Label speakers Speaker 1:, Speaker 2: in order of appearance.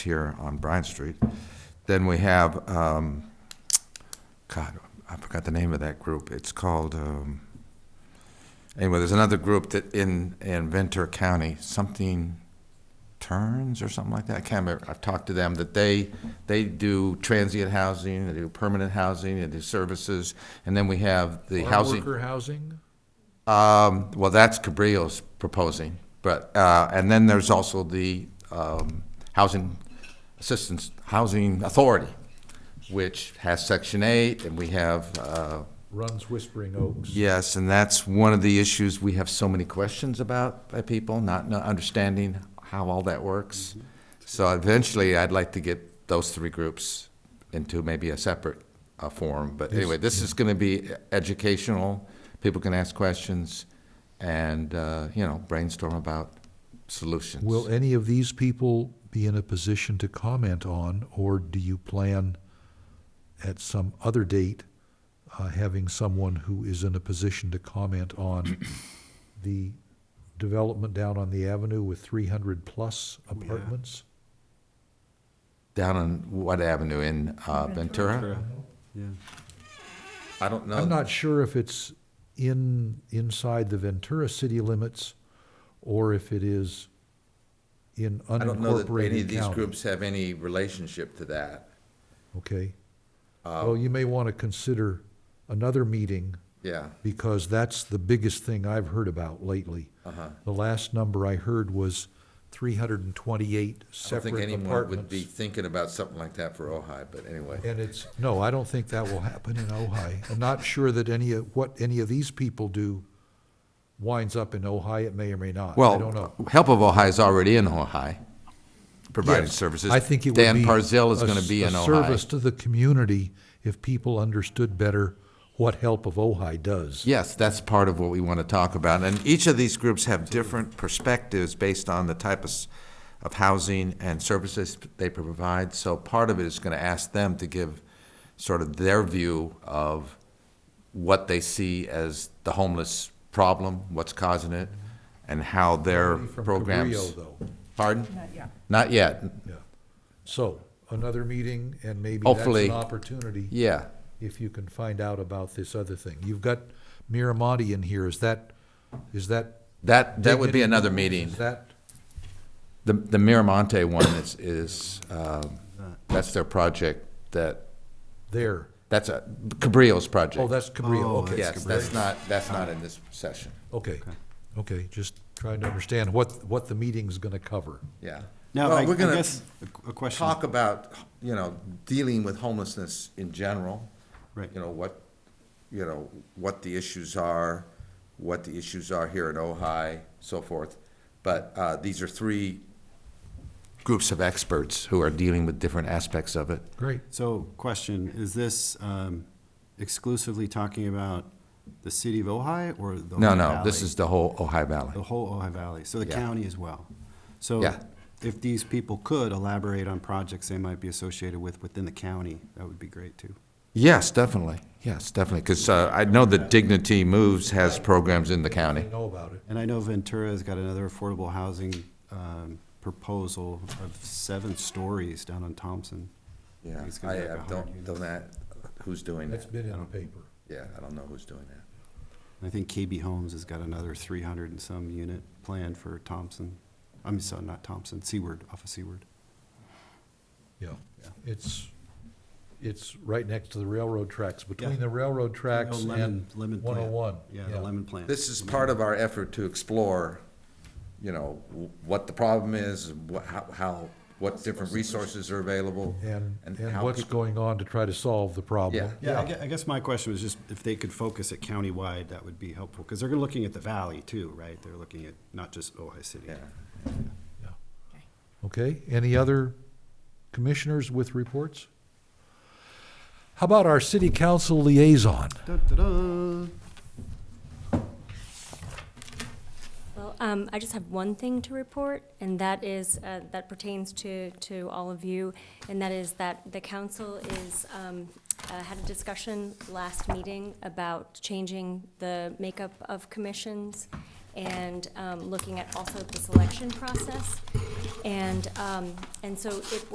Speaker 1: here on Bryan Street. Then we have, um, God, I forgot the name of that group. It's called, um, anyway, there's another group that in, in Ventura County, something Turns or something like that. I can't remember. I've talked to them that they, they do transient housing, they do permanent housing, they do services. And then we have the
Speaker 2: Farm
Speaker 1: housing.
Speaker 2: Worker housing?
Speaker 1: Um, well, that's Cabrillo's proposing, but, uh, and then there's also the, um, Housing Assistance, Housing Authority, which has Section Eight, and we have, uh,
Speaker 2: Runs Whispering Oaks.
Speaker 1: yes, and that's one of the issues we have so many questions about by people, not, not understanding how all that works.
Speaker 2: Mm-hmm.
Speaker 1: So eventually, I'd like to get those three groups into maybe a separate, uh, forum, but anyway, this is gonna be educational. People can ask questions and, uh, you know, brainstorm about solutions.
Speaker 2: Will any of these people be in a position to comment on, or do you plan at some other date, uh, having someone who is in a position to comment on the development down on the avenue with three hundred plus apartments?
Speaker 1: Down on what avenue in, uh, Ventura?
Speaker 3: Yeah,
Speaker 1: I don't know.
Speaker 2: I'm not sure if it's in, inside the Ventura city limits, or if it is in unincorporated
Speaker 1: I
Speaker 2: county.
Speaker 1: don't know that any of these groups have any relationship to that.
Speaker 2: Okay.
Speaker 1: Uh,
Speaker 2: Well, you may want to consider another meeting,
Speaker 1: Yeah,
Speaker 2: because that's the biggest thing I've heard about lately.
Speaker 1: uh-huh.
Speaker 2: The last number I heard was three hundred and twenty-eight
Speaker 1: I don't think
Speaker 2: separate
Speaker 1: anyone would be
Speaker 2: apartments.
Speaker 1: thinking about something like that for Ojai, but anyway.
Speaker 2: And it's, no, I don't think that will happen in Ojai. I'm not sure that any of, what any of these people do winds up in Ojai, it may or may not. I don't know.
Speaker 1: Well, Help of Ojai is already in Ojai, providing
Speaker 2: Yes,
Speaker 1: services.
Speaker 2: I think it would be.
Speaker 1: Dan Parzell is
Speaker 2: a
Speaker 1: gonna
Speaker 2: s-
Speaker 1: be
Speaker 2: a
Speaker 1: in
Speaker 2: Service
Speaker 1: Ojai.
Speaker 2: to the community if people understood better what Help of Ojai does.
Speaker 1: Yes, that's part of what we want to talk about. And each of these groups have different perspectives based on the type of, s- of housing and services they provide. So part of it is going to ask them to give sort of their view of what they see as the homeless problem, what's causing it, and how their
Speaker 2: From
Speaker 1: programs.
Speaker 2: Cabrillo, though.
Speaker 1: Pardon? Not yet.
Speaker 2: Yeah. So, another meeting, and maybe that's
Speaker 1: Hopefully.
Speaker 2: an opportunity,
Speaker 1: Yeah.
Speaker 2: if you can find out about this other thing. You've got Miramonte in here, is that, is that?
Speaker 1: That, that would be
Speaker 2: dignity?
Speaker 1: another meeting.
Speaker 2: Is that,
Speaker 1: The, the Miramonte one is, is, um, that's their project that,
Speaker 2: there,
Speaker 1: that's a, Cabrillo's project.
Speaker 2: oh, that's Cabrillo,
Speaker 3: Oh,
Speaker 2: okay.
Speaker 1: Yes, that's not, that's not in this session,
Speaker 2: Okay, okay, just trying to understand what, what the meeting's gonna cover.
Speaker 1: yeah.
Speaker 3: now,
Speaker 1: Well,
Speaker 3: I I
Speaker 1: we're gonna
Speaker 3: guess, a- a question,
Speaker 1: Talk about, you know, dealing with homelessness in general.
Speaker 3: Right.
Speaker 1: You know, what, you know, what the issues are, what the issues are here in Ojai, so forth. But, uh, these are three groups of experts who are dealing with different aspects of it.
Speaker 2: Great.
Speaker 3: so, question, is this um, exclusively talking about the city of Ojai or the?
Speaker 1: No,
Speaker 3: Ojai
Speaker 1: no, this
Speaker 3: Valley?
Speaker 1: is the whole Ojai Valley.
Speaker 3: The whole Ojai Valley, so the
Speaker 1: Yeah.
Speaker 3: county as well. So
Speaker 1: Yeah.
Speaker 3: if these people could elaborate on projects they might be associated with within the county, that would be great too.
Speaker 1: Yes, definitely, yes, definitely, because I know that Dignity Moves has programs in the
Speaker 2: I
Speaker 1: county.
Speaker 2: know about it.
Speaker 3: And I know Ventura's got another affordable housing um, proposal of seven stories down on Thompson. I
Speaker 1: Yeah,
Speaker 3: think it's gonna
Speaker 1: I
Speaker 3: be like
Speaker 1: I
Speaker 3: 100
Speaker 1: don't,
Speaker 3: units.
Speaker 1: don't that, who's doing
Speaker 2: That's
Speaker 1: that?
Speaker 2: been in the paper.
Speaker 1: Yeah, I don't know who's doing that.
Speaker 3: I think KB Homes has got another three hundred and some unit planned for Thompson. I'm sorry, not Thompson, Seaward, off of Seaward.
Speaker 2: Yeah, it's, it's right next to the railroad tracks, between
Speaker 3: Yeah.
Speaker 2: the railroad tracks
Speaker 1: Oh,
Speaker 3: No, lemon-
Speaker 2: and
Speaker 3: lemon plant.
Speaker 2: one oh one.
Speaker 3: Yeah, the lemon plant.
Speaker 1: This is part of our effort to explore, you know, w- what the problem is, wha- how, how, what different resources are available.
Speaker 2: And, and
Speaker 1: how
Speaker 2: what's
Speaker 1: people-
Speaker 2: going on to try to solve the problem.
Speaker 3: Yeah, I gue- I guess my question was just if they could focus it countywide, that would be helpful, because they're gonna looking at the valley too, right? They're looking at not just Ojai City.
Speaker 1: Yeah.
Speaker 2: Okay, any other commissioners with reports? How about our city council liaison?
Speaker 3: Da-da-da.
Speaker 4: Well, um, I just have one thing to report, and that is, uh, that pertains to, to all of you, and that is that the council is, um, uh, had a discussion last meeting about changing the makeup of commissions and, um, looking at also the selection process. And, um, and so it